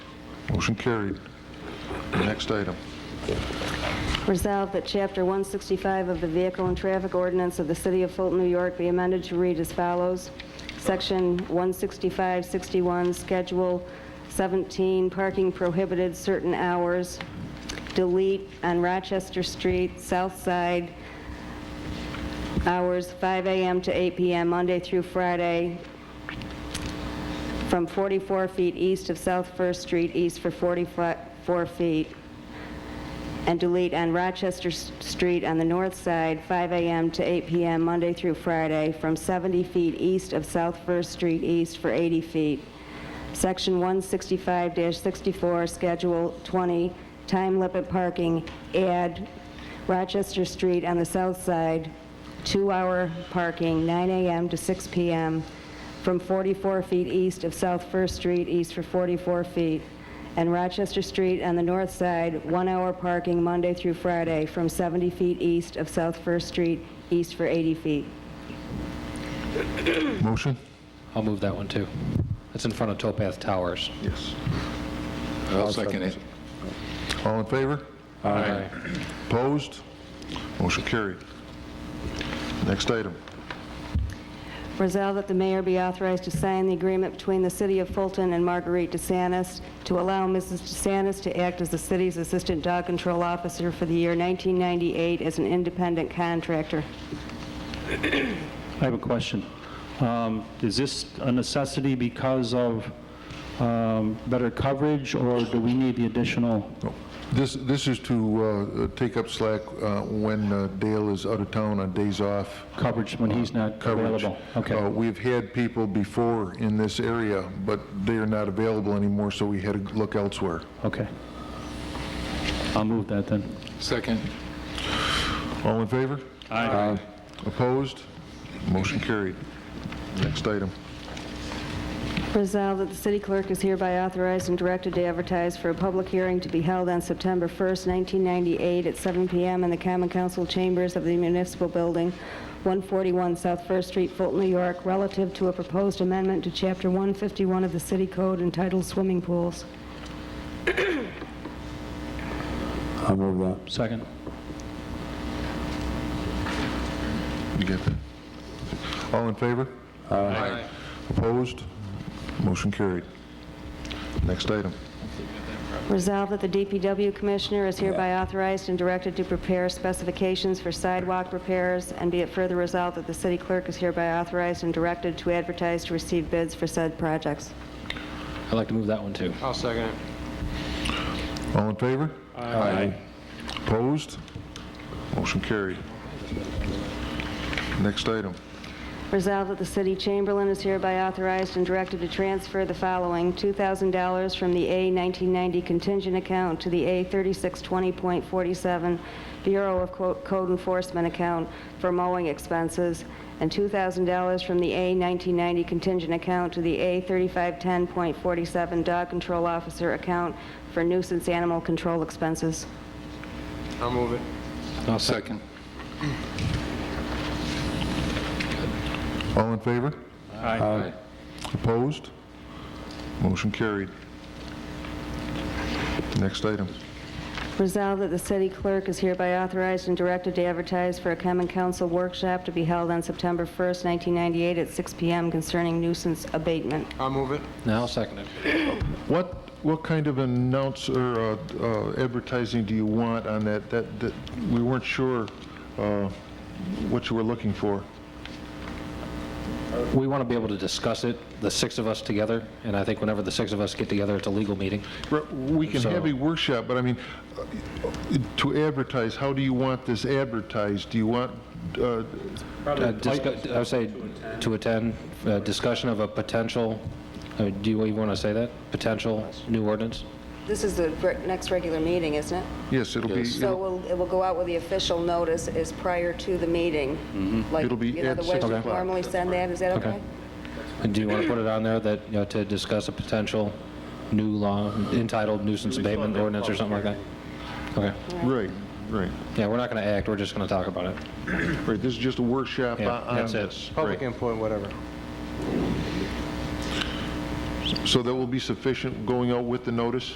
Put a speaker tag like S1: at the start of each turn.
S1: Motion carried. Next item.
S2: Resolved that Chapter 165 of the Vehicle and Traffic Ordinance of the City of Fulton, New York be amended to read as follows. Section 165-61, Schedule 17, Parking Prohibited Certain Hours, delete on Rochester Street, South Side, hours 5 a.m. to 8 p.m., Monday through Friday, from 44 feet east of South First Street, east for 44 feet and delete on Rochester S- Street on the north side, 5 a.m. to 8 p.m., Monday through Friday, from 70 feet east of South First Street East for 80 feet. Section 165-64, Schedule 20, time limit parking, add Rochester Street on the south side, two-hour parking, 9 a.m. to 6 p.m., from 44 feet east of South First Street east for 44 feet, and Rochester Street on the north side, one-hour parking Monday through Friday from 70 feet east of South First Street, east for 80 feet.
S1: Motion?
S3: I'll move that one too. It's in front of Towpath Towers.
S1: Yes. I'll second it. All in favor?
S3: Aye.
S1: Opposed? Motion carried. Next item.
S2: Resolved that the mayor be authorized to sign the agreement between the City of Fulton and Marguerite DeSantis to allow Mrs. DeSantis to act as the city's Assistant Dog Control Officer for the year 1998 as an independent contractor.
S4: I have a question. Um, Is this a necessity because of um, better coverage, or do we need the additional?
S1: Oh, This, this is to uh, take up slack uh, when uh, Dale is out of town on days off.
S4: Coverage when he's not
S1: coverage.
S4: available. Okay.
S1: Uh, We've had people before in this area, but they are not available anymore, so we had to look elsewhere.
S4: Okay. I'll move that then.
S5: Second.
S1: All in favor?
S4: Aye.
S1: Opposed? Motion carried. Next item.
S2: Resolved that the city clerk is hereby authorized and directed to advertise for a public hearing to be held on September 1st, 1998, at 7 p.m. in the Common Council Chambers of the Municipal Building, 141 South First Street, Fulton, New York, relative to a proposed amendment to Chapter 151 of the city code entitled Swimming Pools.
S6: I'll move that.
S4: Second.
S1: You get that? All in favor?
S5: Aye.
S1: Opposed? Motion carried. Next item.
S2: Resolved that the DPW Commissioner is hereby authorized and directed to prepare specifications for sidewalk repairs, and be it further resolved that the city clerk is hereby authorized and directed to advertise to receive bids for said projects.
S3: I'd like to move that one too.
S5: I'll second it.
S1: All in favor?
S6: Aye.
S1: Opposed? Motion carried. Next item.
S2: Resolved that the city chamberlain is hereby authorized and directed to transfer the following: $2,000 from the A 1990 contingent account to the A 3620.47 Bureau of Co- Code Enforcement account for mowing expenses, and $2,000 from the A 1990 contingent account to the A 3510.47 Dog Control Officer account for nuisance animal control expenses.
S5: I'll move it.
S3: I'll second.
S1: All in favor?
S3: Aye.
S1: Opposed? Motion carried. Next item.
S2: Resolved that the city clerk is hereby authorized and directed to advertise for a common council workshop to be held on September 1st, 1998 at 6 PM concerning nuisance abatement.
S5: I'll move it.
S3: Now I'll second it.
S1: What, what kind of announce or uh, uh, advertising do you want on that? That, that, we weren't sure uh, what you were looking for.
S3: We want to be able to discuss it, the six of us together, and I think whenever the six of us get together, it's a legal meeting.
S1: Re- We can have
S3: So-
S1: a workshop, but I mean, uh, to advertise, how do you want this advertised? Do you want, uh,
S3: Uh, discu- I would say to attend, uh, discussion of a potential, uh, do you even want to say that? Potential new ordinance?
S2: This is the re- next regular meeting, isn't it?
S1: yes, it'll be,
S2: So we'll- it will go out with the official notice is prior to the meeting. Like,
S1: Mm-hmm. It'll be
S2: you know,
S1: at
S2: the way
S1: 6
S2: we
S1: o'clock.
S2: normally send that, is that
S3: Okay.
S2: okay?
S3: And do you want to put it on there that, you know, to discuss a potential new law entitled nuisance abatement ordinance or something like that? Okay.
S1: right, right,
S3: Yeah, we're not going to act, we're just going to talk about it.
S1: right, this is just a workshop on
S3: Yeah,
S1: on
S3: that's it.
S1: this.
S5: Public
S1: Right.
S5: input, whatever.
S1: So that will be sufficient going out with the notice?